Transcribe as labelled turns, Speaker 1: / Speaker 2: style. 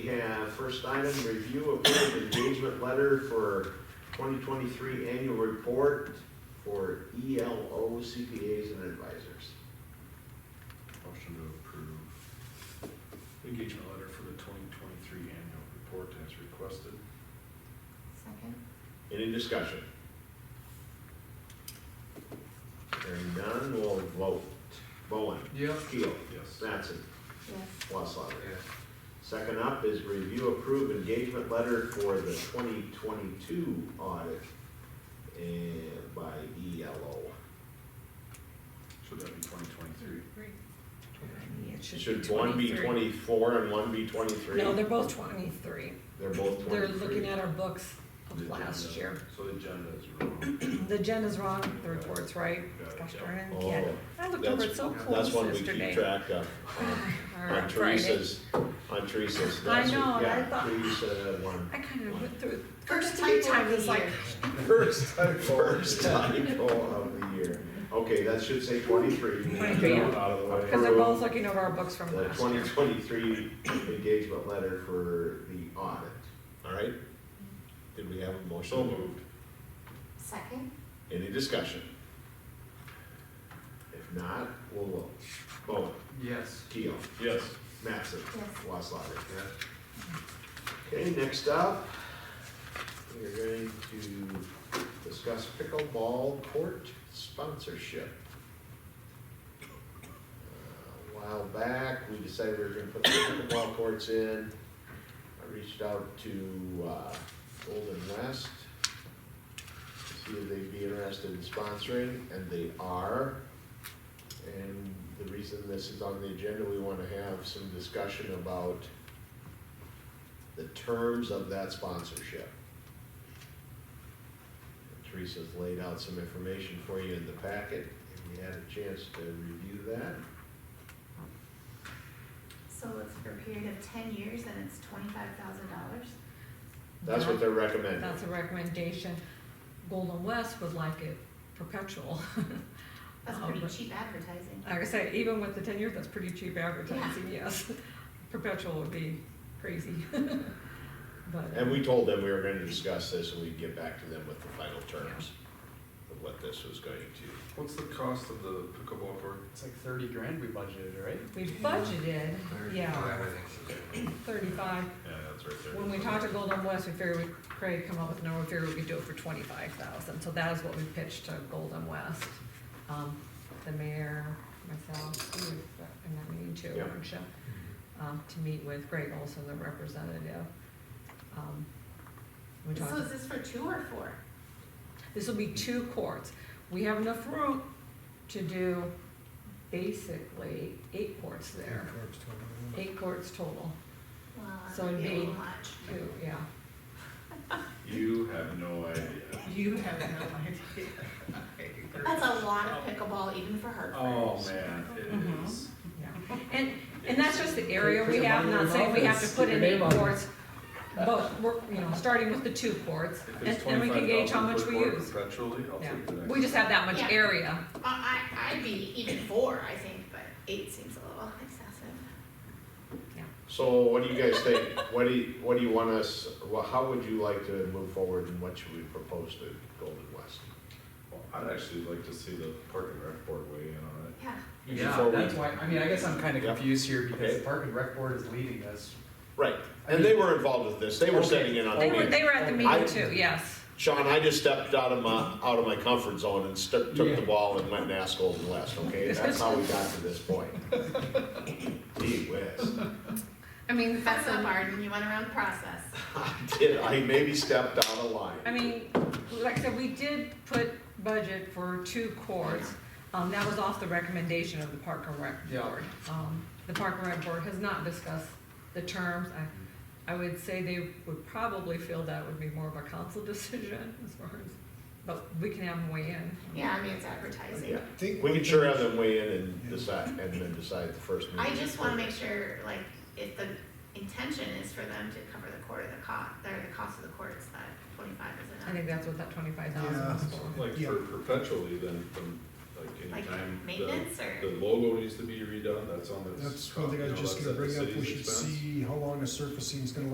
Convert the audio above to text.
Speaker 1: We have first item, review of board engagement letter for 2023 annual report for E ELO CPAs and advisors.
Speaker 2: Motion to approve engagement letter for the twenty twenty-three annual report as requested.
Speaker 3: Second.
Speaker 1: Any discussion? Hearing none, we'll vote. Bowen.
Speaker 2: Yep.
Speaker 1: Keel.
Speaker 2: Yes.
Speaker 1: Mattson.
Speaker 3: Yes.
Speaker 1: Wasslerger.
Speaker 2: Yes.
Speaker 1: Second up is review approved engagement letter for the 2022 audit and by E ELO.
Speaker 2: Should that be twenty twenty-three?
Speaker 3: It should be
Speaker 1: Should one be
Speaker 3: 23.
Speaker 1: 24 and one be 23?
Speaker 3: No, they're both twenty-three.
Speaker 1: They're both 23.
Speaker 3: They're looking at our books of last year.
Speaker 2: So the agenda is wrong.
Speaker 3: The agenda's wrong, the report's right.
Speaker 2: Got it,
Speaker 3: Gosh
Speaker 2: yeah.
Speaker 3: darn it, I
Speaker 1: Oh,
Speaker 3: can't. I looked over it so
Speaker 1: That's
Speaker 3: close
Speaker 1: one we keep
Speaker 3: yesterday.
Speaker 1: track of.
Speaker 3: Or
Speaker 1: On
Speaker 3: Friday.
Speaker 1: Teresa's, on Teresa's.
Speaker 3: I
Speaker 1: that's what-
Speaker 3: know, and I
Speaker 1: yeah,
Speaker 3: thought-
Speaker 1: Teresa had one.
Speaker 3: I kind of went through it.
Speaker 4: First
Speaker 3: First three
Speaker 4: typo of
Speaker 3: times,
Speaker 4: the
Speaker 3: it's like,
Speaker 4: year.
Speaker 1: First typo. First typo of the year. Okay, that should say twenty-three.
Speaker 3: 23, yeah.
Speaker 2: Out of the way.
Speaker 3: because they're both looking over our books from
Speaker 1: The
Speaker 3: last
Speaker 1: twenty
Speaker 3: year.
Speaker 1: twenty-three engagement letter for the audit, all right? Did we have a motion?
Speaker 2: So moved.
Speaker 4: Second?
Speaker 1: Any discussion? If not, we'll vote. Bowen,
Speaker 5: Yes.
Speaker 1: Keel,
Speaker 2: Yes.
Speaker 1: Mattson,
Speaker 4: Yes.
Speaker 1: Waslander.
Speaker 5: Yes.
Speaker 1: Okay, next up, we're going to discuss pickleball court sponsorship. Uh, A while back, we decided we were gonna put the pickleball courts in. I reached out to, uh, Golden West to see if they'd be interested in sponsoring, and they are. And the reason this is on the agenda, we wanna have some discussion about the terms of that sponsorship. Teresa's laid out some information for you in the packet, if you had a chance to review that.
Speaker 4: So it's for a period of ten years and it's twenty-five thousand dollars?
Speaker 1: That's what they're recommending.
Speaker 3: That's a recommendation. Golden West would like it perpetual.
Speaker 4: That's
Speaker 3: Um,
Speaker 4: pretty cheap advertising.
Speaker 3: Like I said, even with the ten years, that's pretty cheap advertising, yes. Perpetual would be crazy. But,
Speaker 1: And we told them we were gonna discuss this and we'd get back to them with the final terms of what this was going to.
Speaker 2: What's the cost of the pickleball court?
Speaker 5: It's like thirty grand we budgeted, right?
Speaker 3: we budgeted, yeah, thirty-five.
Speaker 2: Yeah, that's right there.
Speaker 3: When we talked to Golden West, we figured we'd, Craig come up with a number, we figured we could do it for twenty-five thousand, so that is what we pitched to Golden West. Um, the mayor, myself, who was in that meeting too,
Speaker 1: Yeah.
Speaker 3: weren't you? Um, to meet with Greg Olson, the representative. Um, We
Speaker 4: So
Speaker 3: talked.
Speaker 4: is this for two or four?
Speaker 3: This will be two courts. We have enough room to do basically eight courts there. Eight courts total.
Speaker 4: Well,
Speaker 3: So it'd
Speaker 4: that'd be a
Speaker 3: be-
Speaker 4: little much.
Speaker 3: Two, yeah.
Speaker 2: You have no idea.
Speaker 6: You have no idea.
Speaker 4: That's a lot of pickleball even for Hartford.
Speaker 2: Oh, man,
Speaker 3: Mhm.
Speaker 2: it is.
Speaker 3: Yeah. And, and that's just the area
Speaker 5: Put
Speaker 3: we
Speaker 5: your
Speaker 3: have,
Speaker 5: money in
Speaker 3: not
Speaker 5: the
Speaker 3: saying we have to
Speaker 5: office,
Speaker 3: put
Speaker 5: stick
Speaker 3: in
Speaker 5: your
Speaker 3: eight
Speaker 5: name on it.
Speaker 3: courts. Both, we're, you know, starting with the two courts,
Speaker 2: If
Speaker 3: and
Speaker 2: it's
Speaker 3: and we can gauge how much we
Speaker 2: 25,000 per
Speaker 3: use.
Speaker 2: court Perpetually, I'll
Speaker 3: Yeah.
Speaker 2: take the next.
Speaker 3: We just have that much
Speaker 4: Yeah.
Speaker 3: area.
Speaker 4: Uh, I, I'd be even four, I think, but eight seems a little excessive.
Speaker 1: So what do you guys think? What do you, what do you want us, well, how would you like to move forward and what should we propose to Golden West?
Speaker 2: Well, I'd actually like to see the parking rec board weigh in on it.
Speaker 4: Yeah,
Speaker 5: Yeah,
Speaker 1: Before we-
Speaker 5: that's why, I mean, I guess I'm kinda
Speaker 1: Yeah.
Speaker 5: confused here
Speaker 1: Okay.
Speaker 5: because the park and rec board is leading us.
Speaker 1: Right, and they were involved with this, they were
Speaker 5: Okay.
Speaker 1: sitting in on the
Speaker 3: They were,
Speaker 1: meeting.
Speaker 3: they were at the
Speaker 1: I-
Speaker 3: meeting too, yes.
Speaker 1: Sean, I just stepped out of my, out of my comfort zone and stu- took
Speaker 5: Yeah.
Speaker 1: the ball and went and asked Golden West, okay? That's how we got to this point. Gee whiz.
Speaker 3: I mean,
Speaker 4: that's so hard when you went around the process.
Speaker 1: I did, I maybe stepped out of line.
Speaker 3: I mean, like I said, we did put budget for two courts. Um, that was off the recommendation of the Park and Rec
Speaker 5: Yeah.
Speaker 3: Board. Um, the Park and Rec Board has not discussed the terms. I, I would say they would probably feel that would be more of a council decision as far as, but we can have them weigh in.
Speaker 4: Yeah, I mean, it's advertising.
Speaker 1: Yeah, we can sure have them weigh in and decide, and then decide the first meeting.
Speaker 4: I just wanna make sure, like, if the intention is for them to cover the quarter of the cost, or the cost of the courts, that twenty-five is enough.
Speaker 3: I think that's what that twenty-five thousand was for.
Speaker 2: Like
Speaker 6: Yeah.
Speaker 2: for perpetually, then, then Like
Speaker 4: like
Speaker 2: anytime the,
Speaker 4: maintenance or?
Speaker 2: the logo needs to be redone, that's on the.
Speaker 7: That's one thing I was just gonna bring up, we should see how long the surfacing's gonna